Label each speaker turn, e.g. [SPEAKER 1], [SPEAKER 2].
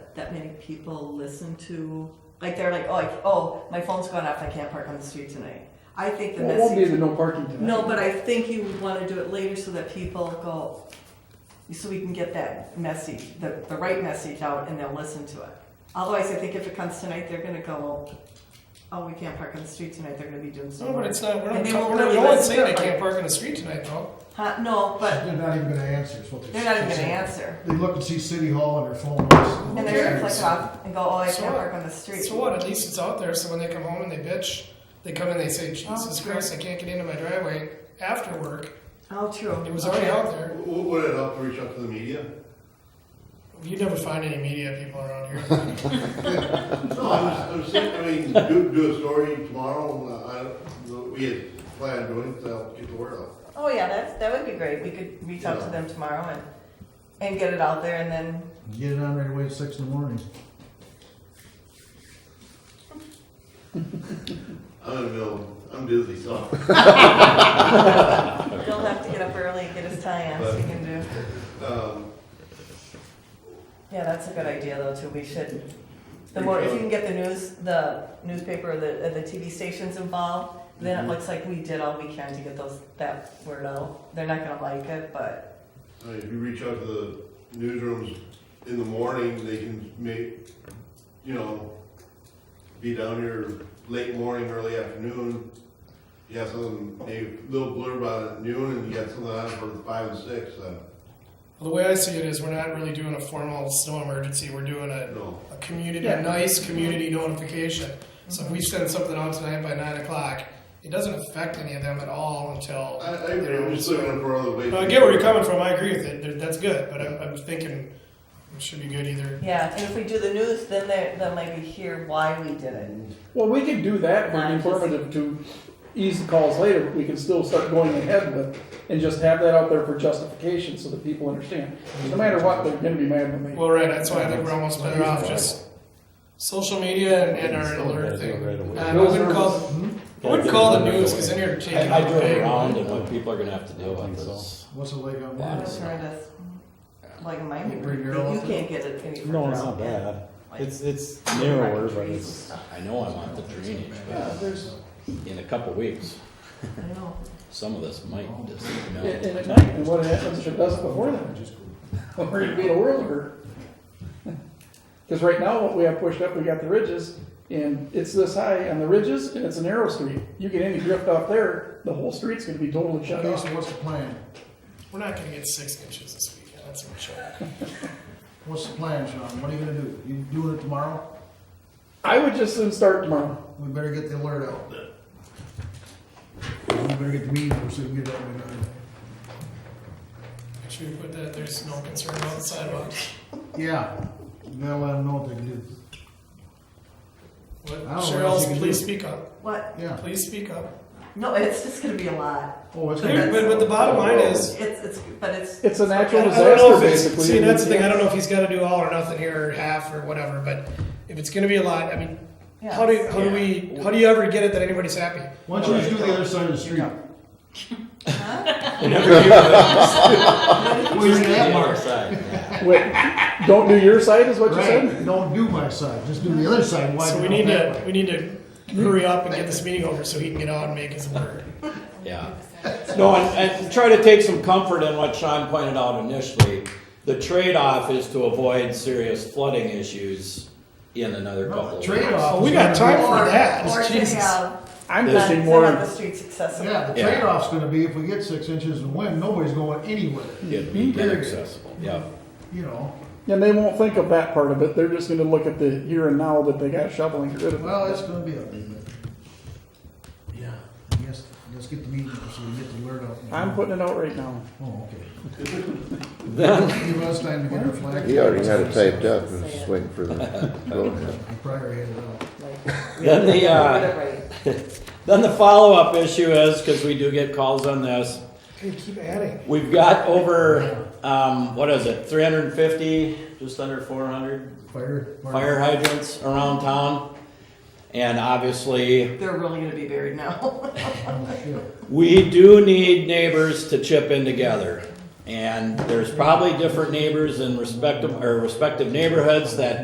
[SPEAKER 1] that many people listen to. Like they're like, oh, I, oh, my phone's going off. I can't park on the street tonight. I think the
[SPEAKER 2] Well, it won't be
[SPEAKER 1] message.
[SPEAKER 2] the no parking tonight.
[SPEAKER 1] No, but I think you would want to do it later so that people go, so we can get that message, the, the right message out and they'll listen to it. Otherwise, I think if it comes tonight, they're gonna go, oh, we can't park on the street tonight, they're gonna be doing
[SPEAKER 3] No,
[SPEAKER 1] so
[SPEAKER 3] but
[SPEAKER 1] much.
[SPEAKER 3] it's not, we're
[SPEAKER 1] And
[SPEAKER 3] not,
[SPEAKER 1] they
[SPEAKER 3] talking-
[SPEAKER 1] won't
[SPEAKER 3] we're not,
[SPEAKER 1] really
[SPEAKER 3] no one's
[SPEAKER 1] listen
[SPEAKER 3] saying
[SPEAKER 1] to
[SPEAKER 3] I
[SPEAKER 1] it.
[SPEAKER 3] can't park in the street tonight, though.
[SPEAKER 1] Huh, no, but
[SPEAKER 4] They're not even gonna answer is what they're.
[SPEAKER 1] they're not even gonna answer.
[SPEAKER 4] They look and see City Hall on their phone. And
[SPEAKER 1] And they're gonna click off and go, oh, I
[SPEAKER 3] So
[SPEAKER 1] can't
[SPEAKER 3] what?
[SPEAKER 1] park on the street.
[SPEAKER 3] So what, at least it's out there, so when they come home and they bitch, they come in, they say, Jesus
[SPEAKER 1] Oh, true.
[SPEAKER 3] Christ, I can't get into my driveway after work.
[SPEAKER 1] Oh, true.
[SPEAKER 3] It was already out there.
[SPEAKER 5] W- w- Would it help to reach out to the media?
[SPEAKER 3] You never find any media people around here.
[SPEAKER 5] No, I was, I was thinking, I mean, do, do a story tomorrow, and uh, I, the- we had planned doing, it, so I'll get the word out.
[SPEAKER 1] Oh, yeah, that's, that would be great. We could reach out to them tomorrow and, and get it out there and then,
[SPEAKER 4] Get it on right away at six in the morning.
[SPEAKER 5] I'm in the middle, I'm busy, so.
[SPEAKER 1] he'll have to get up early and get his tie on so he can do.
[SPEAKER 5] Um,
[SPEAKER 1] Yeah, that's a good idea though too. We should, the more, if you can get the news, the newspaper or the, or the TV stations involved,
[SPEAKER 6] Mm-hmm.
[SPEAKER 1] then it looks like we did all we can to get those, that word out. They're not gonna like it, but,
[SPEAKER 5] I mean, if you reach out to the newsrooms in the morning, they can make, you know, be down here late morning, early afternoon. You have something, maybe a little blurb on it at noon, and you got something on it for five and six, uh,
[SPEAKER 3] The way I see it is, we're not really doing a formal snow emergency, we're doing
[SPEAKER 5] I
[SPEAKER 3] a,
[SPEAKER 5] don't know.
[SPEAKER 3] a community,
[SPEAKER 2] Yeah.
[SPEAKER 3] a nice community notification. So if
[SPEAKER 1] Mm-hmm.
[SPEAKER 3] we send something out tonight by nine o'clock, it doesn't affect any of them at all until.
[SPEAKER 5] I, I agree, I'm just looking for other ways.
[SPEAKER 3] No, I get where you're coming from. I agree with it. There- That's good, but I'm, I'm thinking it should be good either.
[SPEAKER 1] yeah. And if we do the news, then they, they'll maybe hear why we did it.
[SPEAKER 6] Mm-hmm.
[SPEAKER 2] Well, we could do that,
[SPEAKER 1] Not
[SPEAKER 2] but
[SPEAKER 1] just-
[SPEAKER 2] informative to ease the calls later, we can still start going ahead with, and just have that out there for justification, so that people understand. No matter what, they're gonna be mad with me.
[SPEAKER 3] Well, right. That's why I think we're almost better off just social media and, and our alert thing. Um, I wouldn't call,
[SPEAKER 4] Hmm?
[SPEAKER 3] I wouldn't call the news because then you're taking.
[SPEAKER 6] I, I drove
[SPEAKER 3] away.
[SPEAKER 6] around and what people are gonna have to deal with is.
[SPEAKER 4] What's it like on
[SPEAKER 6] Yeah.
[SPEAKER 4] Monday?
[SPEAKER 1] That's horrendous. Like my,
[SPEAKER 4] You bring your
[SPEAKER 1] you
[SPEAKER 4] own-
[SPEAKER 1] can't get it any further.
[SPEAKER 6] No, it's
[SPEAKER 1] out.
[SPEAKER 6] not bad.
[SPEAKER 1] Like-
[SPEAKER 6] It's, it's narrower, but
[SPEAKER 1] Trees and
[SPEAKER 6] it's,
[SPEAKER 1] stuff.
[SPEAKER 6] I know I want the drainage,
[SPEAKER 4] Yeah,
[SPEAKER 6] but
[SPEAKER 4] there's,
[SPEAKER 6] in a couple weeks,
[SPEAKER 1] I know.
[SPEAKER 6] some of this might just
[SPEAKER 2] And, and
[SPEAKER 6] melt.
[SPEAKER 2] at night, and what happens if it doesn't before then?
[SPEAKER 4] just
[SPEAKER 2] We're gonna be in a world of hurt. Cause right now, what we have pushed up, we got the ridges, and it's this high on the ridges, and it's a narrow street. You get any drift off there, the whole street's gonna be totally shut
[SPEAKER 4] Okay,
[SPEAKER 2] off.
[SPEAKER 4] so what's the plan?
[SPEAKER 3] We're not going to get six inches this weekend. That's for sure.
[SPEAKER 4] What's the plan, Sean? What are you gonna do? You doing it tomorrow?
[SPEAKER 2] I would just soon start tomorrow.
[SPEAKER 4] We better get the alert out. We better get the meeting, so we can get that one done.
[SPEAKER 3] Should we put that? There's no concern about the sidewalk.
[SPEAKER 4] Yeah, you gotta let them know what they can do.
[SPEAKER 3] What,
[SPEAKER 4] I don't know what else you
[SPEAKER 3] Cheryl,
[SPEAKER 4] can
[SPEAKER 3] please
[SPEAKER 4] do.
[SPEAKER 3] speak up.
[SPEAKER 1] What?
[SPEAKER 4] Yeah.
[SPEAKER 3] Please speak up.
[SPEAKER 1] No, it's just gonna be a lot.
[SPEAKER 4] Oh, it's
[SPEAKER 3] But,
[SPEAKER 4] gonna,
[SPEAKER 3] but the bottom line is,
[SPEAKER 1] It's, it's, but it's,
[SPEAKER 2] It's a natural
[SPEAKER 3] I don't know
[SPEAKER 2] disaster,
[SPEAKER 3] if it's-
[SPEAKER 2] basically.
[SPEAKER 3] See, that's the thing. I don't know if he's got to do all or nothing here, or half, or whatever. But if it's going to be a lot, I mean,
[SPEAKER 1] yeah.
[SPEAKER 3] how do how do we how do you ever get it that anybody's happy?
[SPEAKER 4] why don't you just do the other side of the street? Well, you're in that part.
[SPEAKER 2] Wait, don't do your side, is what you said?
[SPEAKER 4] Right, don't do my side, just do the other side. Why
[SPEAKER 3] so
[SPEAKER 4] do
[SPEAKER 3] we
[SPEAKER 4] it
[SPEAKER 3] need
[SPEAKER 4] that
[SPEAKER 3] to
[SPEAKER 4] way?
[SPEAKER 3] we need to hurry up and get this meeting over so he can get out and make his word.
[SPEAKER 6] Yeah. No, and, and try to take some comfort in what Sean pointed out initially. The trade-off is to avoid serious flooding issues in another couple of weeks.
[SPEAKER 4] Trade-off.
[SPEAKER 3] Oh, we
[SPEAKER 4] is
[SPEAKER 3] got
[SPEAKER 4] gonna be-
[SPEAKER 3] time for
[SPEAKER 1] Or-
[SPEAKER 3] that.
[SPEAKER 1] Or to
[SPEAKER 3] Jesus.
[SPEAKER 1] have,
[SPEAKER 2] I'm
[SPEAKER 6] This-
[SPEAKER 2] pushing
[SPEAKER 1] to have the
[SPEAKER 2] more,
[SPEAKER 1] streets accessible.
[SPEAKER 4] Yeah, the
[SPEAKER 6] Yeah.
[SPEAKER 4] trade-off's gonna be if we get six inches of wind, nobody's going anywhere,
[SPEAKER 6] It'd be
[SPEAKER 4] Period.
[SPEAKER 6] inaccessible, yeah.
[SPEAKER 4] you know?
[SPEAKER 2] and they won't think of that part of it. They're just gonna look at the here and now that they got shoveling and get rid of. it.
[SPEAKER 4] Well, it's gonna be a. Yeah. Yes, let's get the meeting, so we get the word out.
[SPEAKER 2] I'm putting it out right now.
[SPEAKER 4] Oh, okay. Give us time to get our flag.
[SPEAKER 7] He already had it typed up and was just waiting for the vote.
[SPEAKER 4] He probably had it out.
[SPEAKER 6] Then the, uh,
[SPEAKER 1] Get it right.
[SPEAKER 6] Then the follow-up issue is, because we do get calls on this,
[SPEAKER 3] Hey, keep adding.
[SPEAKER 6] we've got over, um, what is it, three hundred and fifty, just under four hundred
[SPEAKER 4] Fire.
[SPEAKER 6] fire hydrants around town. And obviously,
[SPEAKER 1] They're really gonna be buried now.
[SPEAKER 4] Oh, shit.
[SPEAKER 6] we do need neighbors to chip in together. And there's probably different neighbors in respective, or respective neighborhoods that